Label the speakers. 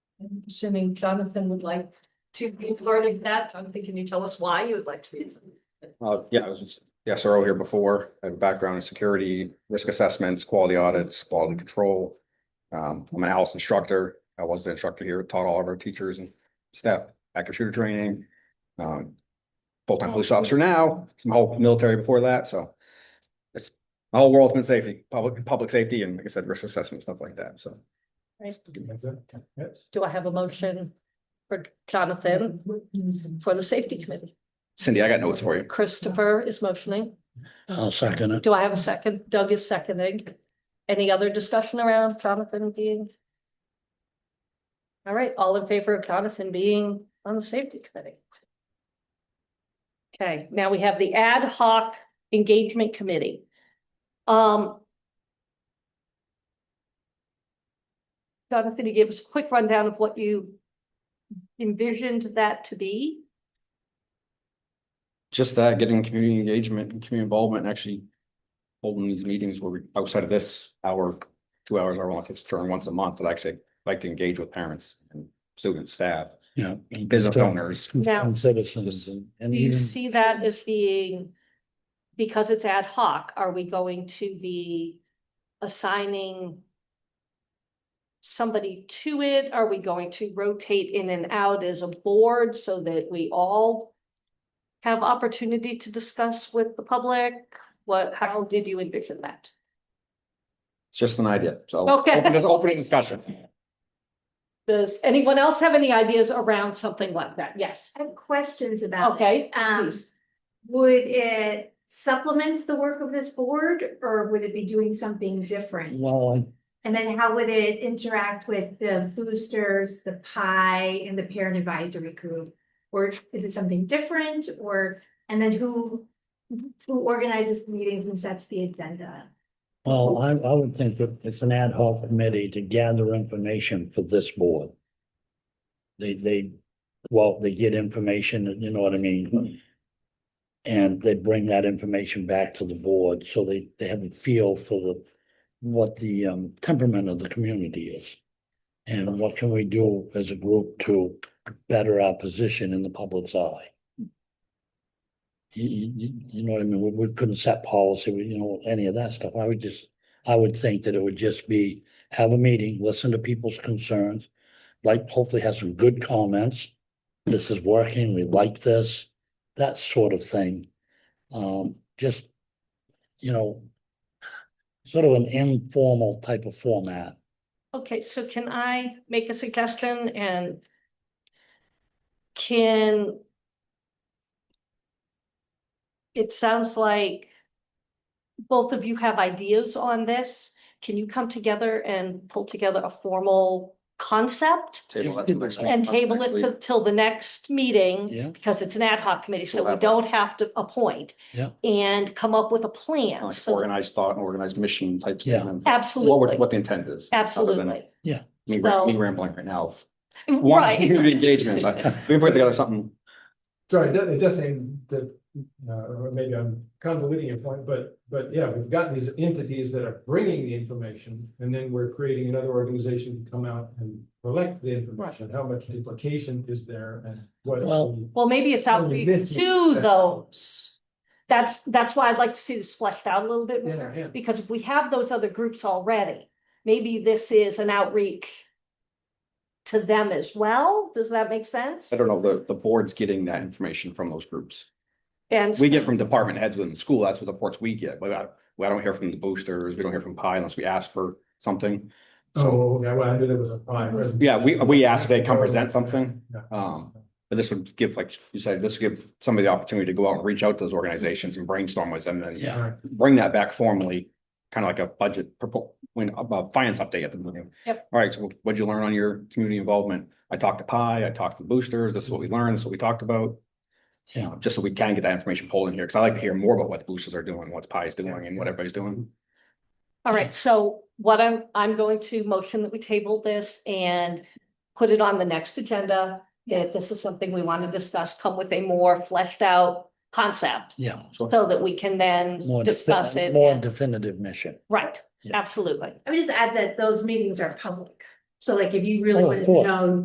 Speaker 1: I'm assuming Jonathan would like to be part of that. Jonathan, can you tell us why you would like to be?
Speaker 2: Uh, yeah, I was just, the SRO here before, I have a background in security, risk assessments, quality audits, quality control. Um, I'm an Alice instructor. I was the instructor here, taught all of our teachers and staff active shooter training. Um, full-time police officer now, some whole military before that, so. It's my whole world's been safety, public, public safety, and like I said, risk assessment, stuff like that, so.
Speaker 1: Do I have a motion for Jonathan for the safety committee?
Speaker 2: Cindy, I got notes for you.
Speaker 1: Christopher is motioning.
Speaker 3: I'll second it.
Speaker 1: Do I have a second? Doug is seconding. Any other discussion around Jonathan being? All right, all in favor of Jonathan being on the safety committee? Okay, now we have the ad hoc engagement committee. Um. Jonathan, you give us a quick rundown of what you envisioned that to be?
Speaker 2: just that, getting community engagement and community involvement and actually holding these meetings where we, outside of this hour, two hours, our office term once a month, that I actually like to engage with parents and students, staff,
Speaker 3: Yeah.
Speaker 2: business owners.
Speaker 1: Now,
Speaker 3: And citizens and- and
Speaker 1: Do you
Speaker 3: even,
Speaker 1: see that as being, because it's ad hoc, are we going to be assigning somebody to it? Are we going to rotate in and out as a board so that we all have opportunity to discuss with the public? What, how did you envision that?
Speaker 2: It's just an idea, so.
Speaker 1: Okay.
Speaker 2: open- Just opening discussion.
Speaker 1: Does anyone else have any ideas around something like that? Yes,
Speaker 4: I have questions about it.
Speaker 1: okay,
Speaker 4: Um,
Speaker 1: please.
Speaker 4: Would it supplement the work of this board or would it be doing something different?
Speaker 3: well, I-
Speaker 4: And then how would it interact with the boosters, the pie and the parent advisory group? Or is it something different or, and then who, who organizes the meetings and sets the agenda?
Speaker 3: well, I, I would think that it's an ad hoc committee to gather information for this board. They, they, well, they get information, you know what I mean? And they bring that information back to the board, so they, they have a feel for the, what the um, temperament of the community is. And what can we do as a group to better our position in the public's eye? You, you, you- you know what I mean? We, we couldn't set policy, we, you know, any of that stuff. I would just, I would think that it would just be have a meeting, listen to people's concerns, like hopefully have some good comments. This is working, we like this, that sort of thing. Um, just, you know, sort of an informal type of format.
Speaker 1: Okay, so can I make a suggestion and can it sounds like both of you have ideas on this. Can you come together and pull together a formal concept
Speaker 2: Table that till next week.
Speaker 1: and table
Speaker 2: Next
Speaker 1: it
Speaker 2: week.
Speaker 1: till- till the next meeting?
Speaker 3: Yeah,
Speaker 1: Because it's an ad hoc committee, so
Speaker 2: We'll
Speaker 1: we
Speaker 2: have a-
Speaker 1: don't have to appoint.
Speaker 3: Yeah.
Speaker 1: And come up with a plan.
Speaker 2: Like
Speaker 1: So
Speaker 2: Organized thought, and organized mission type.
Speaker 3: Yeah.
Speaker 2: What, we're-
Speaker 1: absolutely,
Speaker 2: what the intent is. other than
Speaker 1: absolutely.
Speaker 2: Me ra-
Speaker 1: So-
Speaker 2: me rambling right now. One,
Speaker 1: Right.
Speaker 2: community engagement, but we can put together something
Speaker 5: Sorry, it does- it does seem that, uh, or maybe I'm convoluting your point, but, but yeah, we've got these entities that are bringing the information. And then we're creating another organization to come out and collect the information. How much duplication is there and what?
Speaker 3: Well-
Speaker 1: Well, maybe it's
Speaker 5: Oh,
Speaker 1: outreach
Speaker 5: this is-
Speaker 1: to those. That's, that's why I'd like to see this fleshed out a little bit more,
Speaker 5: Yeah, yeah.
Speaker 1: because if we have those other groups already, maybe this is an outreach to them as well. Does that make sense?
Speaker 2: I don't know, the, the board's getting that information from those groups.
Speaker 1: And
Speaker 2: We get from department heads within the school, that's what the reports we get, but I, we I don't hear from the boosters, we don't hear from Pi unless we ask for something.
Speaker 5: Oh, okay, well, I knew there was a fine.
Speaker 2: Yeah, we- we asked if they come present something.
Speaker 5: Yeah.
Speaker 2: Um, But this would give, like you said, this would give somebody the opportunity to go out and reach out to those organizations and brainstorm with them and
Speaker 3: yeah.
Speaker 5: All right.
Speaker 2: bring that back formally. Kind of like a budget, propo- when, about finance update at the beginning.
Speaker 1: Yep.
Speaker 2: All right, so what'd you learn on your community involvement? I talked to Pi, I talked to the boosters, this is what we learned, this is what we talked about. You know, just so we can get that information pulled in here, because I like to hear more about what the boosters are doing, what Pi is doing and what everybody's doing.
Speaker 1: All right, so what I'm, I'm going to motion that we table this and put it on the next agenda. That this is something we want to discuss, come with a more fleshed out concept,
Speaker 3: Yeah.
Speaker 1: so that we can then
Speaker 3: More
Speaker 1: discuss
Speaker 3: defi-
Speaker 1: it.
Speaker 3: More
Speaker 1: and-
Speaker 3: definitive mission.
Speaker 1: Right,
Speaker 3: Yeah.
Speaker 1: absolutely.
Speaker 4: I would just add that those meetings are public. So like if you really
Speaker 3: Oh, of
Speaker 4: wanted to
Speaker 3: course.
Speaker 4: know